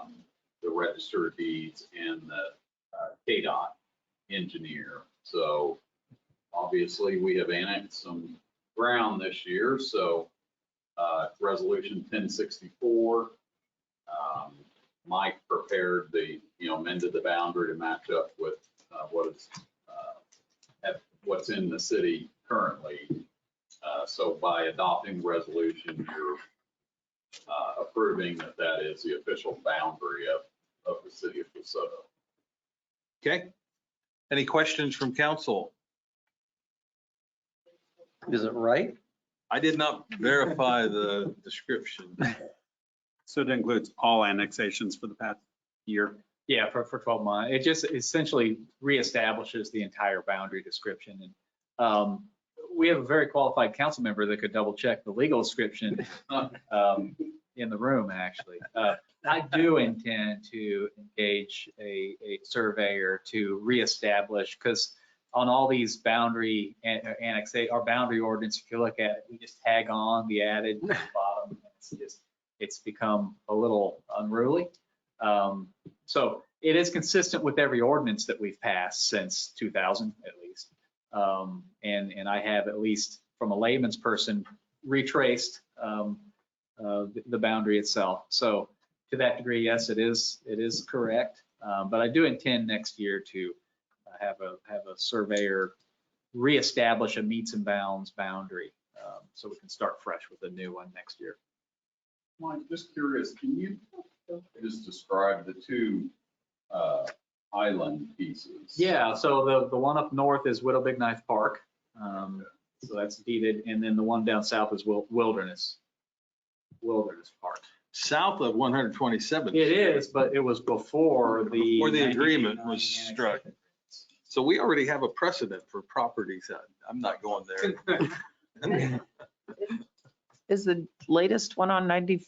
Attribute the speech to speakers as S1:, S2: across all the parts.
S1: um, register of deeds and the uh, KDOT engineer. So obviously, we have annexed some ground this year, so uh, Resolution 1064. um, Mike prepared the, you know, amended the boundary to match up with uh, what is, uh, at- what's in the city currently. Uh, So by adopting the resolution, you're uh, approving that that is the official boundary of, of the city of DeSoto.
S2: Okay. Any questions from council?
S3: Is it right?
S2: I did not verify the description.
S4: So it includes all annexations for the past year.
S5: Yeah, for, for 12 months. It just essentially reestablishes the entire boundary description. And um, we have a very qualified council member that could double check the legal description um, in the room, actually. Uh, I do intend to engage a, a surveyor to reestablish, because on all these boundary eh, an- annexa, our boundary ordinance, if you look at it, we just tag on the added at the bottom. It's just, it's become a little unruly. Um, so it is consistent with every ordinance that we've passed since 2000 at least. Um, and, and I have at least from a layman's person retraced, um, uh, the, the boundary itself. So to that degree, yes, it is, it is correct. Um, but I do intend next year to uh, have a, have a surveyor reestablish a meets and bounds boundary. Um, so we can start fresh with a new one next year.
S1: Mike, just curious, can you just describe the two uh, island pieces?
S5: Yeah, so the, the one up north is Widow Big Knife Park. Um, So that's deeded, and then the one down south is Wil- Wilderness, Wilderness Park.
S2: South of 127th.
S5: It is, but it was before the.
S2: Before the agreement was
S5: 1989
S2: struck. So we already have a precedent for properties. I- I'm not going there.
S6: Is the latest one on 95th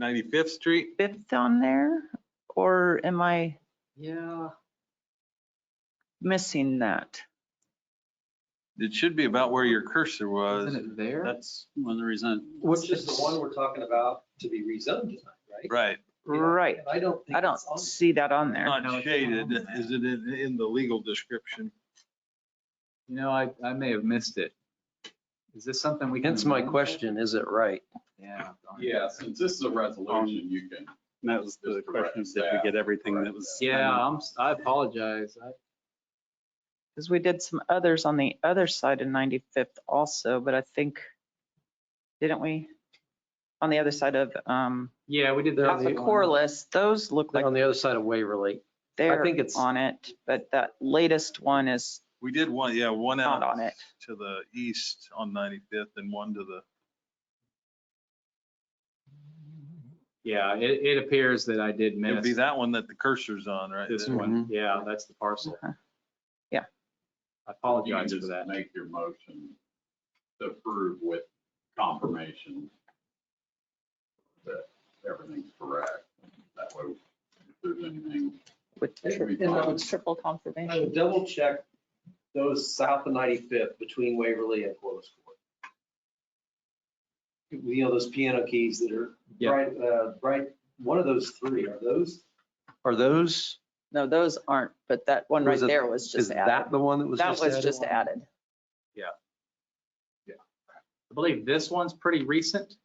S2: 95th Street,
S6: on there? Or am I
S5: Yeah,
S6: missing that?
S2: it should be about where your cursor was.
S5: isn't it
S2: uh,
S5: there?
S4: That's one of the reasons.
S3: Which is the one we're talking about to be rezoned tonight, right?
S2: Right,
S6: Right,
S3: And I don't think.
S6: I don't
S3: it's on there.
S6: see that on there.
S5: No,
S2: not
S5: it's
S2: shaded.
S5: not on there.
S2: Is it in, in the legal description?
S5: You know, I, I may have missed it. Is this something we can?
S3: Hence my
S5: amend?
S3: question, is it right?
S5: Yeah. darn it.
S1: Yeah, since this is a resolution, you can,
S4: And that was the
S1: Just correct
S4: question, did
S1: that.
S4: we get everything that was?
S5: Yeah, I'm, s- I apologize. I-
S6: Because we did some others on the other side of 95th also, but I think, didn't we? On the other side of, um,
S5: Yeah, we did.
S3: They're
S5: that
S3: on the-
S6: Corliss, those look like
S3: On the other side of Waverly.
S6: they're
S3: think it's-
S6: on it, but that latest one is
S2: We did one, yeah, one
S6: Not
S2: out
S6: on it.
S2: to the east on 95th and one to the,
S5: Yeah, it, it appears that I did
S2: it'd be
S5: miss.
S2: that one that the cursor's on, right?
S5: This
S2: That-
S5: one,
S3: Mm-hmm.
S5: yeah, that's the parcel.
S6: Uh-huh. Yeah.
S5: I
S1: you can
S5: apologize for
S1: just
S5: that.
S1: make your motion to approve with confirmation that everything's correct. That way, if there's anything
S6: with
S3: Hey,
S6: tri-
S1: and I would-
S6: triple
S3: I
S6: confirmation.
S3: would double check those south of 95th between Waverly and Corliss Court. You know, those piano keys that are
S5: Yeah.
S3: bright, uh, bright, one of those three, are those? Are those,
S6: No, those aren't, but that one right
S3: Was it-
S6: there was just added.
S3: the one that was
S6: That was just added.
S5: I believe this one's pretty recent.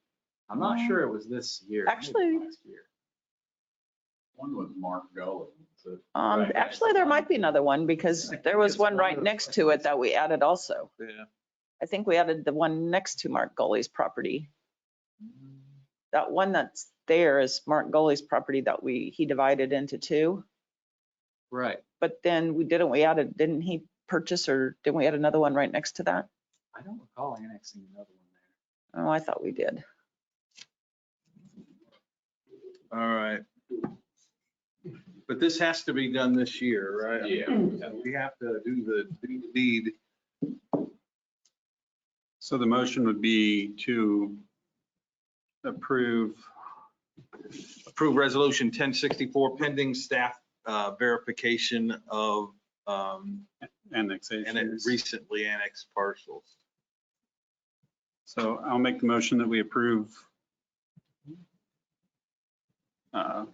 S5: I'm not sure it was this year. I think it was
S6: Actually-
S5: last year.
S1: One was Mark Gully. so-
S6: Um,
S5: Right.
S6: actually, there might be another one because there was
S3: It's
S6: one
S3: one
S6: right
S3: of-
S6: next to it that we added also.
S2: Yeah.
S6: I think we added the one next to Mark Gully's property. That one that's there is Mark Gully's property that we, he divided into two.
S5: Right.
S6: But then we didn't, we added, didn't he purchase or didn't we add another one right next to that?
S5: I don't recall annexing another one there.
S6: Oh, I thought we did.
S2: All right. But this has to be done this year, right? uh,
S1: Yeah.
S2: We have to do the do the deed.
S4: So the motion would be to approve,
S2: Approve resolution 1064 pending staff uh, verification of um, and it
S4: annexations.
S2: recently annexed parcels.
S4: So I'll make the motion that we approve uh,